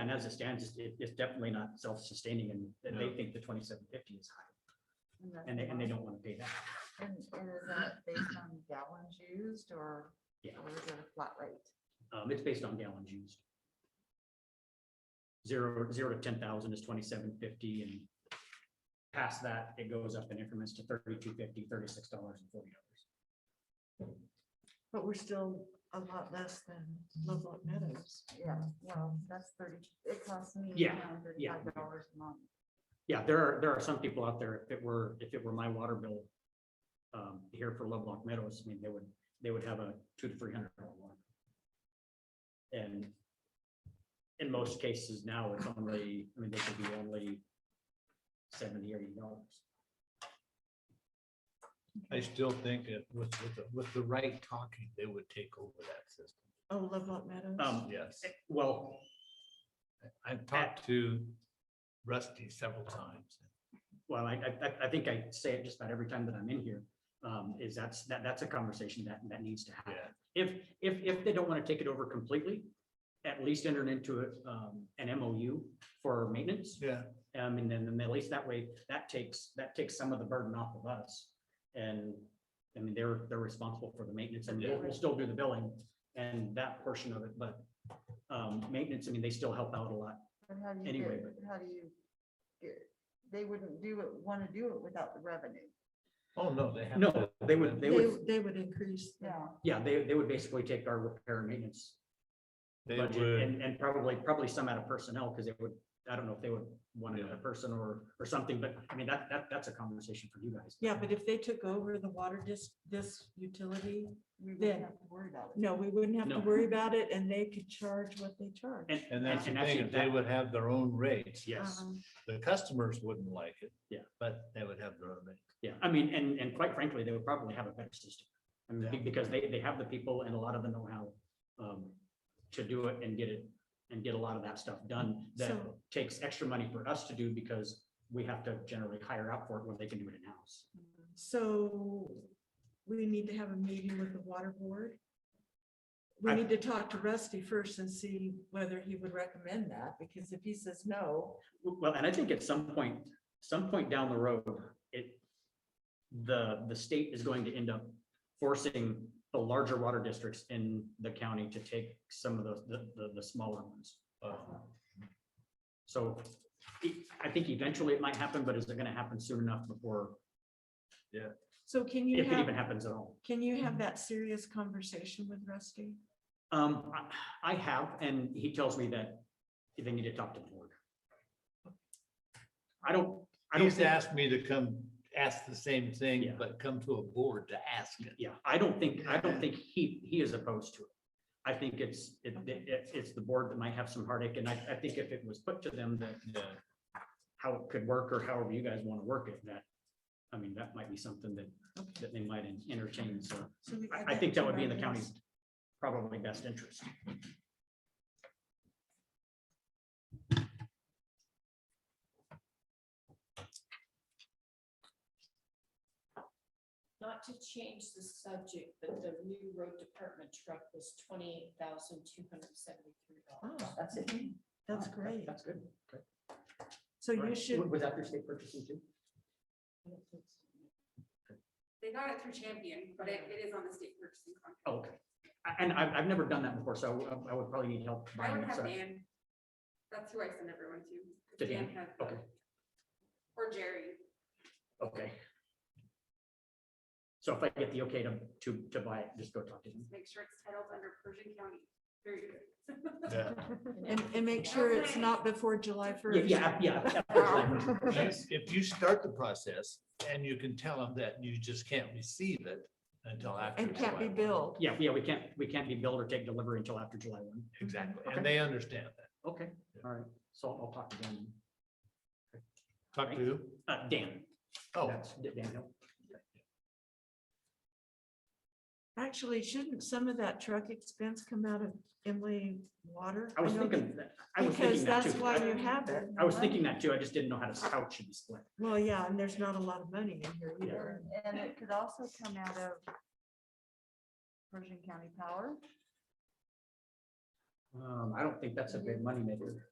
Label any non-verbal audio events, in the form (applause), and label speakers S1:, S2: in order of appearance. S1: and as it stands, it's- it, it's definitely not self-sustaining and, and they
S2: No.
S1: think the twenty-seven fifty is high
S3: that's
S1: and they, and they
S3: fine.
S1: don't want to pay that.
S3: And, and is that based on gallons used or,
S1: Yeah.
S3: or is it a flat rate?
S1: Um, it's based on gallons used. Zero, zero to ten thousand is twenty-seven fifty and past that, it goes up in increments to thirty-two fifty, thirty-six dollars and forty dollars.
S4: But we're still a lot less than Lovelock Meadows.
S3: Yeah, well, that's thirty, it costs me.
S1: Yeah,
S3: around
S1: yeah.
S3: $35 a month.
S1: Yeah, there are, there are some people out there, if it were, if it were my water bill um, here for Lovelock Meadows, I mean, they would, they would have a two to three hundred dollar one. And in most cases now, it's only, I mean, they could be only seventy, eighty dollars.
S2: I still think that with, with, the- with the right talking, they would take over that system.
S4: Oh, Lovelock Meadows.
S1: Um,
S2: Yes,
S1: Well,
S2: I've talked to Rusty several times.
S1: well, I, I- I, I think I say it just about every time that I'm in here, um, is that's, that, that's a conversation that, that needs to happen.
S2: Yeah,
S1: If, if, if they don't want to take it over completely, at least enter into it, um, an MOU for maintenance.
S2: yeah.
S1: Um, and then, then at least that way, that takes, that takes some of the burden off of us. And, I mean, they're, they're responsible for the maintenance and we'll, we'll still do the billing and that portion of it, but, um, maintenance, I mean, they still help out a lot.
S3: But how do you
S1: Anyway,
S3: get, how do you get, they wouldn't do it, want to do it without the revenue.
S2: Oh, no, they have.
S1: No,
S2: to-
S1: they would-
S4: They,
S1: they would-
S4: they would increase. the-
S3: Yeah.
S1: Yeah, they, they would basically take our repair and maintenance
S2: They
S1: budget
S2: would,
S1: and, and probably, probably some out of personnel, because they would, I don't know if they would want another
S2: Yeah.
S1: person or, or something, but I mean, that, that, that's a conversation for you guys.
S4: Yeah, but if they took over the water dis, this utility,
S3: We
S4: Then-
S3: wouldn't have to worry about it.
S4: no, we wouldn't have
S1: No.
S4: to worry about it and they could charge what they charge.
S1: And,
S2: and that's the
S1: and actually
S2: thing, they
S1: that-
S2: would have their own rates.
S1: Yes.
S4: Um,
S2: The customers wouldn't like it.
S1: Yeah.
S2: But they would have their own rate.
S1: Yeah, I mean, and, and quite frankly, they would probably have a better system. I mean,
S2: Yeah.
S1: be- because they, they have the people and a lot of the know-how um, to do it and get it, and get a lot of that stuff done. That
S4: So-
S1: takes extra money for us to do because we have to generally hire out for it when they can do it in-house.
S4: So we need to have a meeting with the water board. We
S1: I-
S4: need to talk to Rusty first and see whether he would recommend that, because if he says no,
S1: Well, and I think at some point, some point down the road, it, the, the state is going to end up forcing the larger water districts in the county to take some of the, the- the, the smaller ones.
S2: Uh,
S1: So e- I think eventually it might happen, but is it gonna happen soon enough before,
S4: so can you
S1: if it
S4: have,
S1: even happens at all?
S4: can you have that serious conversation with Rusty?
S1: Um, I, I have, and he tells me that they need to talk to the board. I don't, I don't,
S2: He's
S1: think-
S2: asked me to come ask the same thing,
S1: Yeah.
S2: but come to a board to ask it.
S1: yeah, I don't think, I don't think he, he is opposed to it. I think it's, it, it, it's the board that might have some heartache, and I, I think if it was put to them that
S2: Yeah.
S1: how it could work or however you guys wanna work it, that, I mean, that might be something that,
S4: Okay.
S1: that they might entertain, so.
S4: So we add
S1: I, I think that
S4: to
S1: would be in the
S4: our
S1: county's
S4: list.
S1: probably best interest.
S5: not to change the subject, but the new road department truck was twenty-eight thousand two hundred seventy-three dollars.
S4: Oh,
S3: That's it.
S4: That's
S1: Oh, that-
S4: great.
S1: That's good. Okay.
S4: So
S1: All
S4: you
S1: right.
S4: should,
S1: Was that your state purchasing too?
S6: They got it through Champion, but it, it is on the state purchasing contract.
S1: Oh, Okay. I- And I've, I've never done that before, so I would- I would probably need help
S6: I
S1: buying
S6: don't
S1: it.
S6: have
S1: so-
S6: Dan. That's who I send everyone to.
S1: To Dan?
S6: has the-
S1: Okay,
S6: Or Jerry.
S1: okay. So if I get the okay to, to, to buy it, just go talk to him.
S6: Just make sure it's titled under Persian County. Very good. (laughs)
S2: Yeah.
S4: and, and make sure it's not before July
S1: Yeah,
S4: first.
S1: Yeah, yeah. absolutely. (laughs)
S2: Yes, If you start the process and you can tell them that you just can't receive it until after.
S4: And can't be
S2: July.
S4: billed.
S1: Yeah, yeah, we can't, we can't be billed or take delivery until after July one.
S2: Exactly,
S1: Okay.
S2: and they understand that.
S1: Okay, all right. So I'll I'll talk to Dan.
S2: Talk to who?
S1: Uh, Dan.
S2: Oh,
S1: That's Dan Hill.
S4: Actually, shouldn't some of that truck expense come out of Emily Water?
S1: I was
S4: know
S1: thinking, that- I was
S4: Because
S1: thinking that too.
S4: that's why
S1: I-
S4: you have it.
S1: I was thinking that too. I just didn't know how to couch and split.
S4: Well, yeah, and there's not a lot of money in here either.
S3: And it could also come out of Persian County Power.
S1: Um, I don't think that's a big moneymaker.